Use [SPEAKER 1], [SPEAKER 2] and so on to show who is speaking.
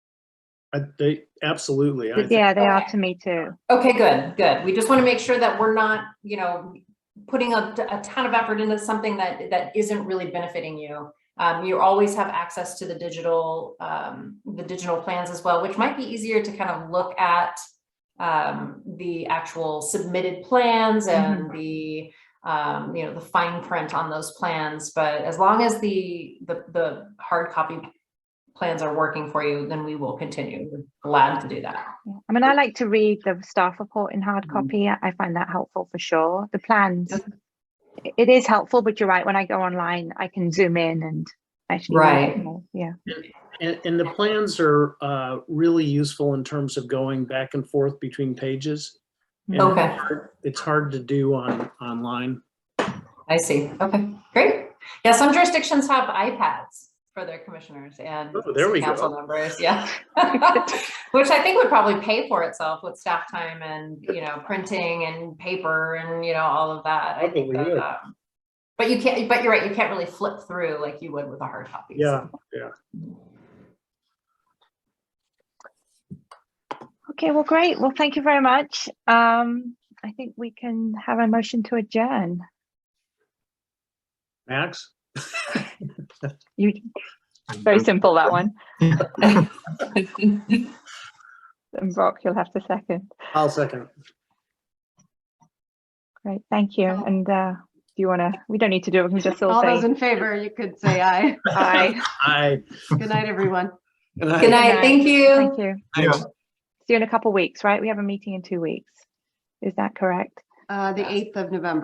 [SPEAKER 1] I, they, absolutely. I,
[SPEAKER 2] Yeah, they are
[SPEAKER 3] Okay.
[SPEAKER 2] to me too.
[SPEAKER 3] Okay, good, good. We just want to make sure that we're not, you know, putting a, a ton of effort into something that, that isn't really benefiting you. Um, you always have access to the digital, um, the digital plans as well, which might be easier to kind of look at um, the actual submitted plans and the, um, you know, the fine print on those plans. But as long as the, the, the hard copy plans are working for you, then we will continue. We're Glad to do that.
[SPEAKER 2] Yeah. I mean, I like to read the staff report in hard
[SPEAKER 3] Mhm.
[SPEAKER 2] copy. I I find that helpful for sure. The plans, i- it is helpful, but you're right. When I go online, I can zoom in and actually. read it
[SPEAKER 3] Right.
[SPEAKER 2] more. Yeah.
[SPEAKER 1] and, and the plans are uh, really useful in terms of going back and forth between pages. And
[SPEAKER 2] Oh,
[SPEAKER 3] Okay.
[SPEAKER 1] It's hard to do on, online.
[SPEAKER 3] I see. Okay, great. Yeah, some jurisdictions have iPads for their commissioners and
[SPEAKER 1] Oh, there
[SPEAKER 3] city
[SPEAKER 1] we go.
[SPEAKER 3] council members, yeah. Which I think would probably pay for itself with staff time and, you know, printing and paper and, you know, all of that. I think
[SPEAKER 1] Probably would.
[SPEAKER 3] that, um, But you can't, but you're right, you can't really flip through like you would with a hard copy. so.
[SPEAKER 1] Yeah.
[SPEAKER 2] Okay, well, great. Well, thank you very much. Um, I think we can have a motion to adjourn.
[SPEAKER 1] Max?
[SPEAKER 2] You, very simple, that one. And Brock, you'll have to second.
[SPEAKER 1] I'll second.
[SPEAKER 2] Great, thank you. And, uh, do you want to, we don't need to do it. We can just all
[SPEAKER 4] All those
[SPEAKER 2] say
[SPEAKER 4] in favor, you could say aye.
[SPEAKER 2] aye.
[SPEAKER 1] Aye.
[SPEAKER 4] Good night, everyone.
[SPEAKER 3] Good night,
[SPEAKER 2] night.
[SPEAKER 3] thank you.
[SPEAKER 2] Thank you.
[SPEAKER 1] Thanks.
[SPEAKER 2] See you in a couple of weeks, right? We have a meeting in two weeks. Is that correct?
[SPEAKER 4] Uh, the 8th of November.